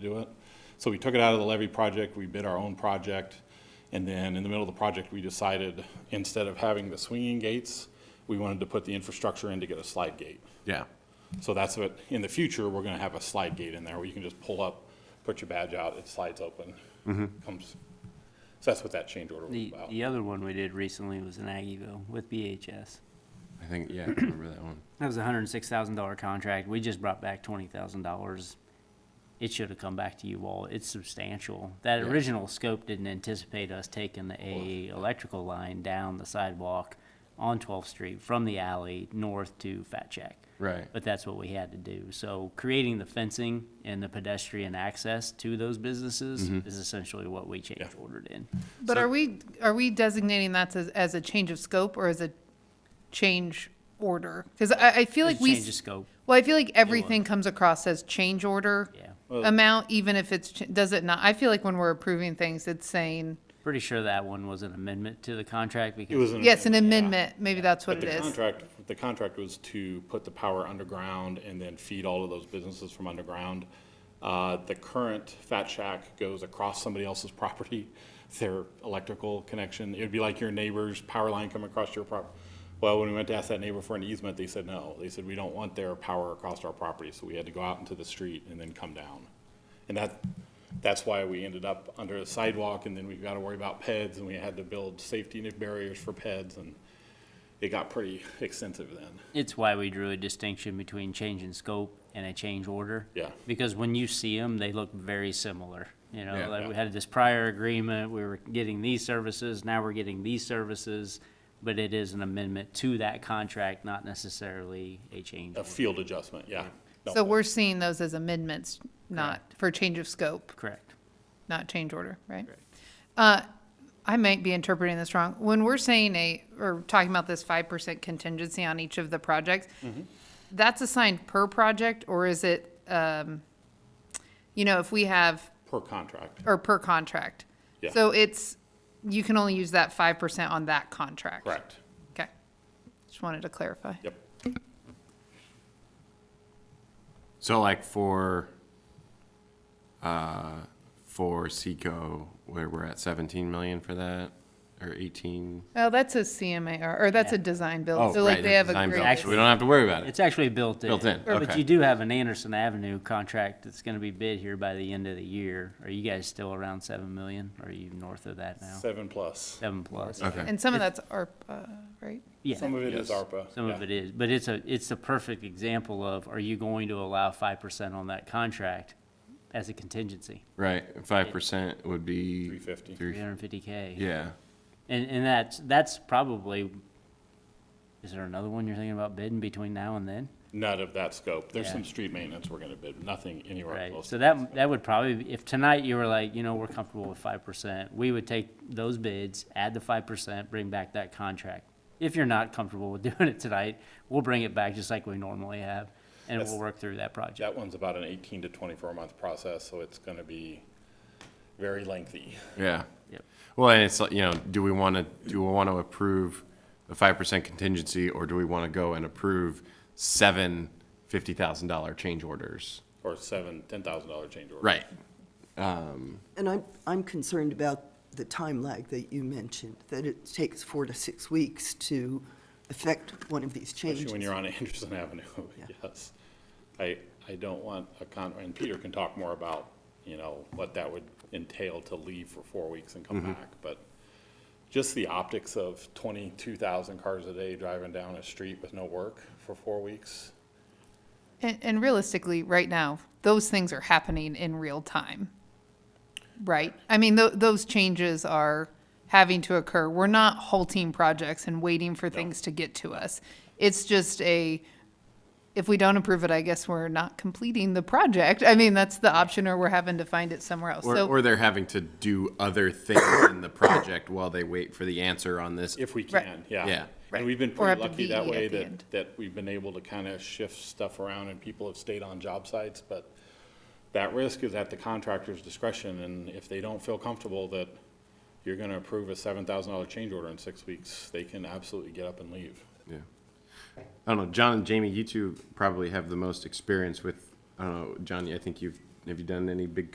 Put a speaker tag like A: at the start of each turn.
A: do it. So we took it out of the levy project, we bid our own project, and then in the middle of the project, we decided, instead of having the swinging gates, we wanted to put the infrastructure in to get a slide gate.
B: Yeah,
A: So that's what, in the future, we're gonna have a slide gate in there where you can just pull up, put your badge out, it slides open. Comes, so that's what that change order was
C: The,
A: about.
C: the other one we did recently was in Aggieville with BHS.
B: I think, yeah, I remember that one.
C: That was a hundred and six thousand dollar contract. We just brought back twenty thousand dollars. It should have come back to you all. It's substantial. That
B: Yeah.
C: original scope didn't anticipate us taking the a electrical line down the sidewalk on 12th Street from the alley north to Fat Shack.
B: Right.
C: But that's what we had to do. So creating the fencing and the pedestrian access to those businesses
B: Mm-hmm.
C: is essentially what we change ordered in.
D: But are we, are we designating that as, as a change of scope or as a change order? Because I, I feel
C: It's
D: like
C: a
D: we,
C: change of
D: s-
C: scope.
D: well, I feel like everything comes across as change order
C: Yeah.
D: amount, even if it's, ch- does it not? I feel like when we're approving things, it's saying,
A: Mm-hmm.
C: Pretty sure that one was an amendment to the contract because.
A: It was an.
D: yes, an
A: yeah.
D: amendment, maybe that's what
A: But
D: it
A: the
D: is.
A: contract, the contract was to put the power underground and then feed all of those businesses from underground. Uh, The current Fat Shack goes across somebody else's property, their electrical connection. It'd be like your neighbor's power line coming across your property. Well, when we went to ask that neighbor for an easement, they said no. They said, we don't want their power across our property, so we had to go out into the street and then come down. And that, that's why we ended up under a sidewalk, and then we got to worry about PEDs, and we had to build safety net barriers for PEDs, and it got pretty extensive then.
C: It's why we drew a distinction between change in scope and a change order.
A: Yeah.
C: Because when you see them, they look very similar. You
B: Yeah.
C: know, like we had this prior agreement, we were getting these services, now we're getting these services, but it is an amendment to that contract, not necessarily a change.
A: A
C: order.
A: field adjustment, yeah. No,
D: So we're seeing those as amendments, not for change of scope,
C: Correct.
D: not change order, right? Uh, I might be interpreting this wrong. When we're saying a, or talking about this five percent contingency on each of the projects,
B: Mm-hmm.
D: that's assigned per project, or is it, um, you know, if we have,
A: Per contract,
D: or per contract?
A: Yeah.
D: So it's, you can only use that five percent on that contract?
A: correct,
D: Okay. Just wanted to clarify.
A: yep.
B: So like for, uh, for Seco, where we're at seventeen million for that, or eighteen?
D: Oh, that's a CMAR, or that's a design
B: Oh,
D: build, so like
B: right,
D: they have a
B: design
D: great.
B: build, so We don't have to worry about it.
C: It's actually built in.
B: Built in,
C: But
B: okay.
C: you do have an Anderson Avenue contract that's gonna be bid here by the end of the year. Are you guys still around seven million? Or Are you north of that now?
A: Seven plus.
C: Seven plus?
B: Okay,
D: And some of that's ARPA, right?
C: Yeah.
A: Some of it is
B: Yes.
A: ARPA.
C: Some of
A: yeah.
C: it is, but it's a, it's a perfect example of, are you going to allow five percent on that contract as a contingency?
B: right, five percent would be.
A: 350.
B: three-
C: Three hundred and fifty K?
B: Yeah,
C: And, and that's, that's probably, is there another one you're thinking about bidding between now and then?
A: None of that scope. There's
C: Yeah.
A: some street maintenance we're gonna bid, nothing anywhere
C: Right,
A: close.
C: so
A: to
C: that, that would probably, be- if tonight you were like, you know, we're comfortable with five percent, we would take those bids, add the five percent, bring back that contract. If you're not comfortable with doing it tonight, we'll bring it back just like we normally have, and we'll
A: That's-
C: work through that project.
A: That one's about an eighteen to twenty-four month process, so it's gonna be very lengthy.
B: yeah.
C: Yep.
B: Well, and it's like, you know, do we want to, do we want to approve the five percent contingency, or do we want to go and approve seven fifty thousand dollar change orders?
A: Or seven, ten thousand dollar change order.
B: Right,
E: And I'm, I'm concerned about the time lag that you mentioned, that it takes four to six weeks to affect one of these changes.
A: Especially when you're on Anderson Avenue, yes. I, I don't want a con, and Peter can talk more about, you know, what that would entail to leave for four weeks and come back, but just the optics of twenty-two thousand cars a day driving down a street with no work for four weeks.
D: And, and realistically, right now, those things are happening in real time. Right? I mean, tho- those changes are having to occur. We're not halting projects and waiting for things to get to us. It's just a, if we don't approve it, I guess we're not completing the project. I mean, that's the option, or we're having to find it somewhere else.
B: or,
D: So,
B: or they're having to do other things in the project while they wait for the answer on this.
A: If we
D: Right.
A: can, yeah.
B: Yeah.
A: And we've been
D: Or have
A: pretty
D: to
A: lucky that
D: be
A: way
D: at the
A: that,
D: end.
A: that we've been able to kind of shift stuff around and people have stayed on job sites, but that risk is at the contractor's discretion, and if they don't feel comfortable that you're gonna approve a seven thousand dollar change order in six weeks, they can absolutely get up and leave.
B: Yeah. I don't know, John and Jamie, you two probably have the most experience with, I don't know, Johnny, I think you've, have you done any big